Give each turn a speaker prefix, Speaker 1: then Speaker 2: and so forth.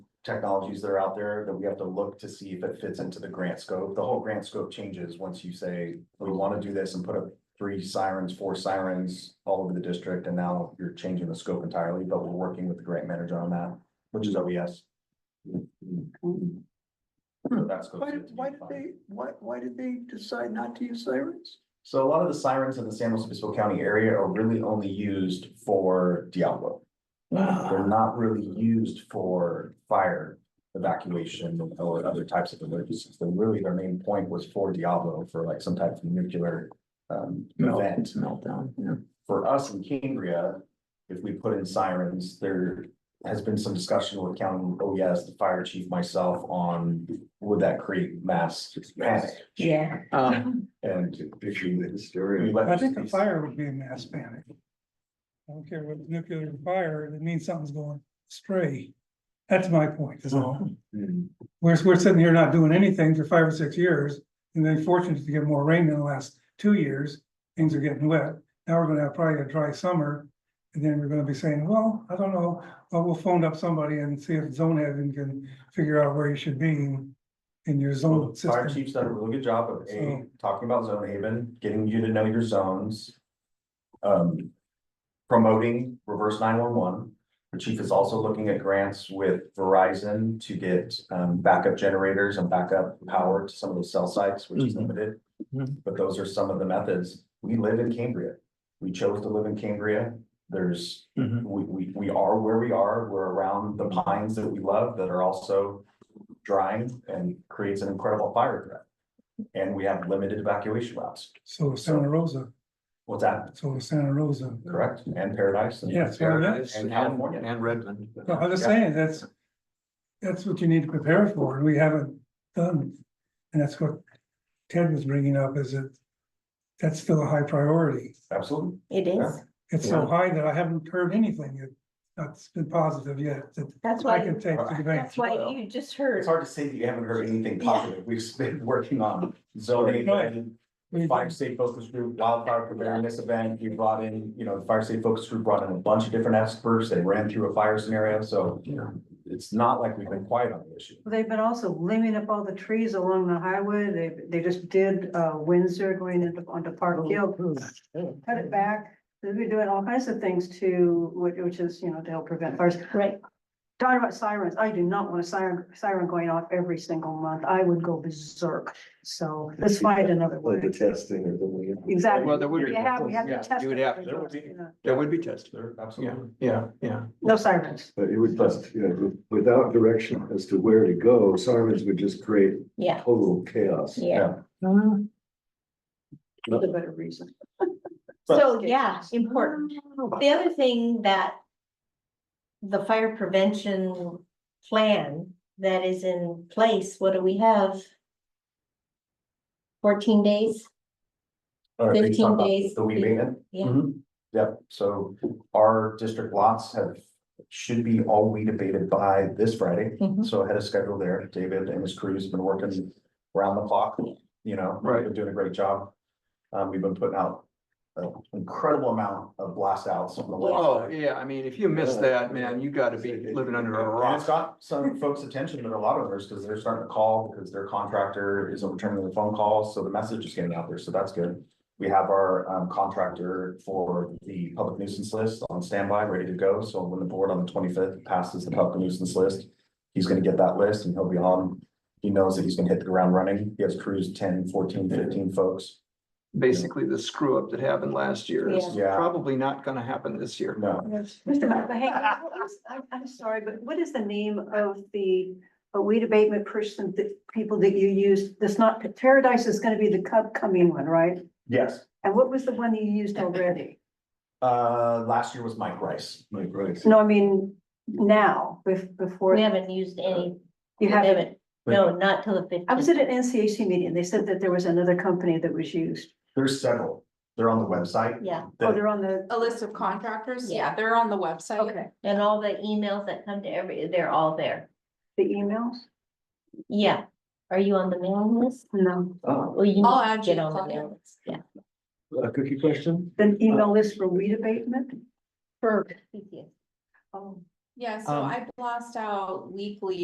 Speaker 1: technologies that are out there that we have to look to see if it fits into the grant scope. The whole grant scope changes once you say, we want to do this and put up three sirens, four sirens all over the district, and now you're changing the scope entirely, but we're working with the grant manager on that, which is E OES. So that's.
Speaker 2: Why, did- why did they, why, why did they decide not to use sirens?
Speaker 1: So a lot of the sirens in the San Luis Obispo County area are really only used for Diablo.
Speaker 3: Ah.
Speaker 4: Ah,
Speaker 1: They're not really used for fire evacuation or other types of emergencies. They're really, their main point was for Diablo, for like some type of nuclear um, event.
Speaker 2: Meltdown, yeah.
Speaker 1: For us in Cambria, if we put in sirens, there has been some discussion with county OES, the fire chief, myself, on would that create mass panic?
Speaker 5: Yeah.
Speaker 4: Um,
Speaker 1: And
Speaker 2: Picturing the
Speaker 1: we
Speaker 2: story.
Speaker 1: let
Speaker 3: I think a
Speaker 1: these-
Speaker 3: fire would be a mass panic. I don't care what nuclear fire, it means something's going astray. That's my point, is all.
Speaker 1: Mm-hmm.
Speaker 3: We're, we're sitting here not doing anything for five or six years, and then fortunate to get more rain in the last two years, things are getting wet. Now we're gonna have probably a dry summer, and then we're gonna be saying, well, I don't know, well, we'll phone up somebody and see if zone heaven can figure out where you should be in in your
Speaker 1: Well,
Speaker 3: zone
Speaker 1: the Fire
Speaker 3: system.
Speaker 1: chief's done a really good job of A,
Speaker 3: So-
Speaker 1: talking about zone haven, getting you to know your zones. Um, promoting reverse nine one one. The chief is also looking at grants with Verizon to get um backup generators and backup power to some of those cell sites, which is
Speaker 4: Mhm.
Speaker 1: limited.
Speaker 4: Mhm.
Speaker 1: But those are some of the methods. We live in Cambria. We chose to live in Cambria. There's
Speaker 4: mhm.
Speaker 1: we, we, we are where we are. We're around the pines that we love that are also drying and creates an incredible fire threat. And we have limited evacuation routes.
Speaker 3: So is Santa Rosa,
Speaker 1: What's that?
Speaker 3: so is Santa Rosa.
Speaker 1: Correct? And Paradise? and-
Speaker 3: Yeah, that's what it is.
Speaker 1: And California.
Speaker 4: And Redmond.
Speaker 3: No, I'm just
Speaker 1: Yeah.
Speaker 3: saying, that's, that's what you need to prepare for, and we haven't done. And that's what Ted was bringing up, is that that's still a high priority.
Speaker 1: Absolutely.
Speaker 5: It
Speaker 1: Yeah.
Speaker 5: is.
Speaker 3: It's so high that I haven't heard anything that- that's been positive yet, that
Speaker 5: That's
Speaker 3: I
Speaker 5: why,
Speaker 3: can
Speaker 5: you-
Speaker 3: take to the bank.
Speaker 5: that's why
Speaker 1: Well,
Speaker 5: you just
Speaker 1: It's
Speaker 5: heard.
Speaker 1: hard to say that you haven't heard anything
Speaker 5: Yeah.
Speaker 1: positive. We've been working on zoning
Speaker 3: Right.
Speaker 1: and
Speaker 3: We-
Speaker 1: fire safe focus group, wildfire preparedness event, we brought in, you know, the fire safe focus group brought in a bunch of different experts, they ran through a fire scenario, so.
Speaker 4: Yeah.
Speaker 1: It's not like we've been quiet on the issue.
Speaker 6: Well, They've been also limbing up all the trees along the highway. They, they just did, uh, Windsor going into, onto Park Hill. Cut it back. They've been doing all kinds of things to, which, which is, you know, to help prevent fires.
Speaker 5: Right.
Speaker 6: Talking about sirens, I do not want a siren, siren going off every single month. I would go berserk. So let's find another
Speaker 2: Like the
Speaker 6: way.
Speaker 2: testing or the.
Speaker 6: Exactly.
Speaker 4: Well, there would be.
Speaker 6: We have, we have to
Speaker 4: yeah,
Speaker 6: test.
Speaker 4: You would
Speaker 6: it.
Speaker 4: have,
Speaker 1: There would be.
Speaker 4: there would be testing.
Speaker 1: There,
Speaker 4: Yeah,
Speaker 1: absolutely.
Speaker 4: yeah, yeah.
Speaker 6: No sirens.
Speaker 2: But it would just, you know, without direction as to where to go, sirens would just create
Speaker 5: Yeah,
Speaker 2: total chaos.
Speaker 5: yeah.
Speaker 6: That's a better reason.
Speaker 1: But-
Speaker 5: So, yeah, important. The other thing that the fire prevention plan that is in place, what do we have? Fourteen days?
Speaker 1: Or they
Speaker 5: 15
Speaker 1: talk about
Speaker 5: days.
Speaker 1: The weed ban.
Speaker 5: Yeah.
Speaker 1: Mhm. Yep, so our district lots have, should be all weed abated by this Friday.
Speaker 5: Mhm.
Speaker 1: So ahead of schedule there, David and his crew has been working around the clock, you know,
Speaker 4: Right.
Speaker 1: they're doing a great job. Um, we've been putting out an incredible amount of blast outs on the
Speaker 4: Oh,
Speaker 1: website.
Speaker 4: yeah, I mean, if you miss that, man, you gotta be living under a
Speaker 1: And it's
Speaker 4: rock.
Speaker 1: got some folks' attention, but a lot of others, because they're starting to call, because their contractor isn't returning the phone calls, so the message is getting out there, so that's good. We have our um contractor for the public nuisance list on standby, ready to go, so when the board on the twenty-fifth passes the public nuisance list. He's gonna get that list and he'll be on, he knows that he's gonna hit the ground running, he has crews 10, 14, 15 folks.
Speaker 4: Basically, the screw up that happened last year is
Speaker 1: Yeah.
Speaker 4: probably not gonna happen this year.
Speaker 1: No,
Speaker 6: Mr. McBain, what is- I'm, I'm sorry, but what is the name of the uh, weed abatement person, the people that you used? That's not, Paradise is gonna be the cup coming one, right?
Speaker 1: yes,
Speaker 6: And what was the one you used already?
Speaker 1: uh, last year was Mike Rice.
Speaker 2: Like, right.
Speaker 6: No, I mean, now, bef- before
Speaker 5: We haven't used any. we
Speaker 6: you have,
Speaker 5: No, not till the fifteen.
Speaker 6: I was at an NCAC meeting. They said that there was another company that was used.
Speaker 1: There's several, they're on the website.
Speaker 5: Yeah,
Speaker 6: Oh,
Speaker 1: The-
Speaker 6: they're on the,
Speaker 7: A list of contractors,
Speaker 5: Yeah.
Speaker 7: yeah, they're on the website.
Speaker 6: okay,
Speaker 5: and all the emails that come to every, they're all there.
Speaker 6: the emails?
Speaker 5: Yeah. Are you on the mailing list?
Speaker 6: No,
Speaker 1: uh,
Speaker 2: Ah,
Speaker 5: Well, you
Speaker 7: I'll
Speaker 5: need to
Speaker 7: add you,
Speaker 5: get on the
Speaker 7: Claudia.
Speaker 5: mailing list, yeah.
Speaker 2: A cookie question?
Speaker 6: the email list for weed abatement?
Speaker 5: For. PTSD.
Speaker 6: Oh.
Speaker 7: Yeah, so
Speaker 4: Um,
Speaker 7: I blast out weekly